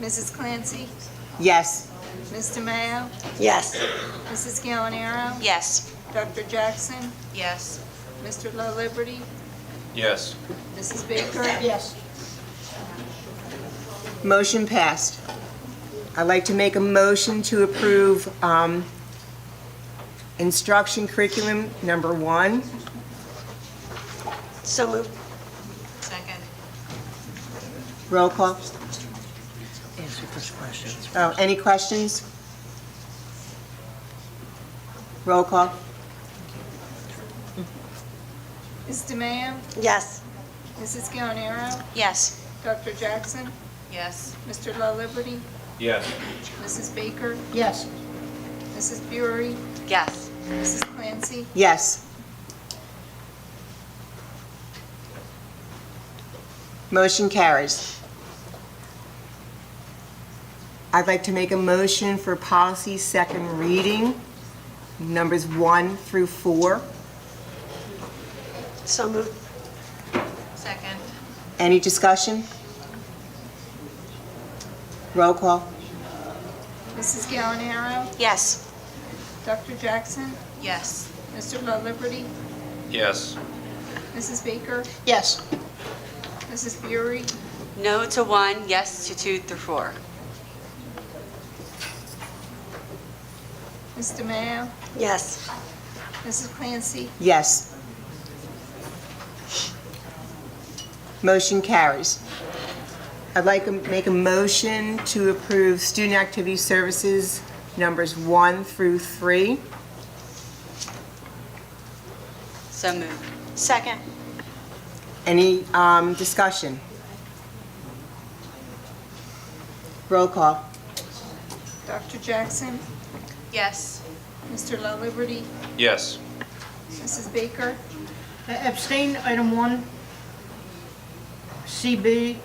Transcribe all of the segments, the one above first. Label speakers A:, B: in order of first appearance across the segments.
A: Mrs. Clancy?
B: Yes.
A: Mr. Mayo?
B: Yes.
A: Mrs. Gallinaro?
C: Yes.
A: Dr. Jackson?
C: Yes.
A: Mr. La Liberty?
D: Yes.
A: Mrs. Baker?
B: Yes. Motion passed. I'd like to make a motion to approve um, instruction curriculum number one.
C: So moved. Second.
B: Roll call.
E: Answer those questions.
B: Oh, any questions? Roll call.
A: Mr. Mayo?
C: Yes.
A: Mrs. Gallinaro?
C: Yes.
A: Dr. Jackson?
C: Yes.
A: Mr. La Liberty?
D: Yes.
A: Mrs. Baker?
B: Yes.
A: Mrs. Buery?
C: Yes.
A: Mrs. Clancy?
B: Yes. Motion carries. I'd like to make a motion for policy second reading, numbers one through four.
C: So moved. Second.
B: Any discussion? Roll call.
A: Mrs. Gallinaro?
C: Yes.
A: Dr. Jackson?
C: Yes.
A: Mr. La Liberty?
D: Yes.
A: Mrs. Baker?
B: Yes.
A: Mrs. Buery?
C: No to one, yes to two through four.
A: Mr. Mayo?
C: Yes.
A: Mrs. Clancy?
B: Yes. Motion carries. I'd like to make a motion to approve student activity services numbers one through three.
C: So moved. Second.
B: Any um, discussion? Roll call.
A: Dr. Jackson?
C: Yes.
A: Mr. La Liberty?
D: Yes.
A: Mrs. Baker?
F: Uh, Abstain, item one. CB,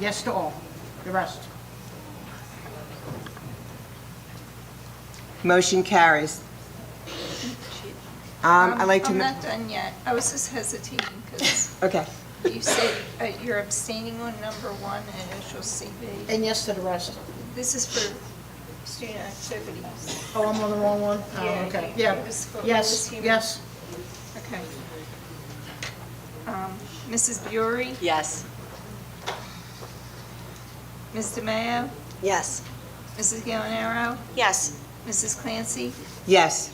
F: yes to all. The rest.
B: Motion carries. Um, I'd like to,
A: I'm
B: ma-
A: not done yet. I was just hesitating because
B: okay.
A: you said uh, you're abstaining on number one, and initial CB.
F: And yes to the rest.
A: This is for student activities.
F: Oh, I'm on the wrong one? Oh,
A: Yeah,
F: okay.
A: you-
F: Yeah.
A: it was for- it was
F: Yes,
A: human.
F: yes.
A: Okay. Um, Mrs. Buery?
C: Yes.
A: Mr. Mayo?
C: Yes.
A: Mrs. Gallinaro?
C: Yes.
A: Mrs. Clancy?
B: Yes.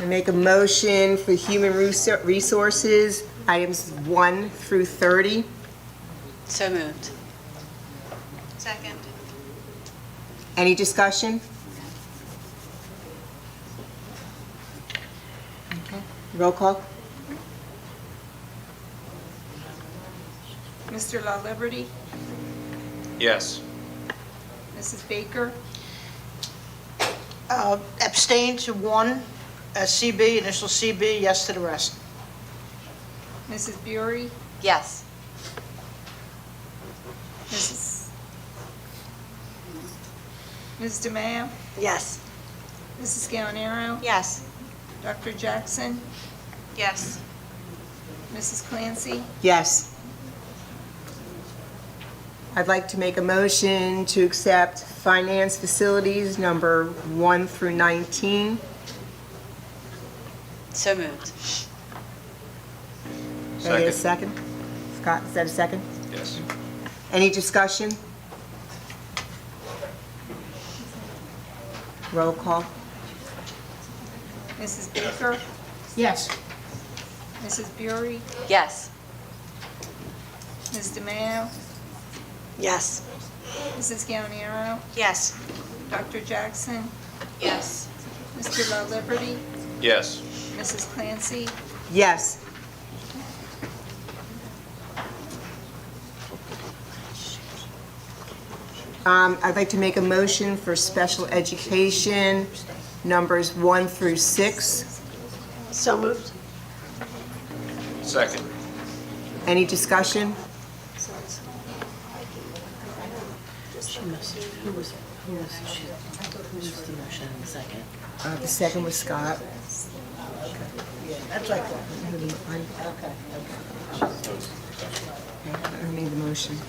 B: I make a motion for human resou- resources, items one through 30.
C: So moved. Second.
B: Any discussion? Okay. Roll call?
A: Mr. La Liberty?
D: Yes.
A: Mrs. Baker?
F: Uh, Abstain to one, uh, CB, initial CB, yes to the rest.
A: Mrs. Buery?
C: Yes.
A: Mrs. Ms. DeMayo?
C: Yes.
A: Mrs. Gallinaro?
C: Yes.
A: Dr. Jackson?
C: Yes.
A: Mrs. Clancy?
B: Yes. I'd like to make a motion to accept finance facilities number one through 19.
C: So moved.
B: Can I get a
D: Second.
B: second? Scott, is that a second?
D: Yes.
B: Any discussion? Roll call?
A: Mrs. Baker?
F: Yes.
A: Mrs. Buery?
C: Yes.
A: Ms. DeMayo?
C: Yes.
A: Mrs. Gallinaro?
C: Yes.
A: Dr. Jackson?
C: Yes.
A: Mr. La Liberty?
D: Yes.
A: Mrs. Clancy?
B: Yes. Um, I'd like to make a motion for special education, numbers one through six.
C: So moved.
D: Second.
B: Any discussion?
E: She must, who was, who was, she, who was the motion in the second?
B: Uh, The second was Scott.
F: That's like,
B: I
F: okay.
B: made the motion.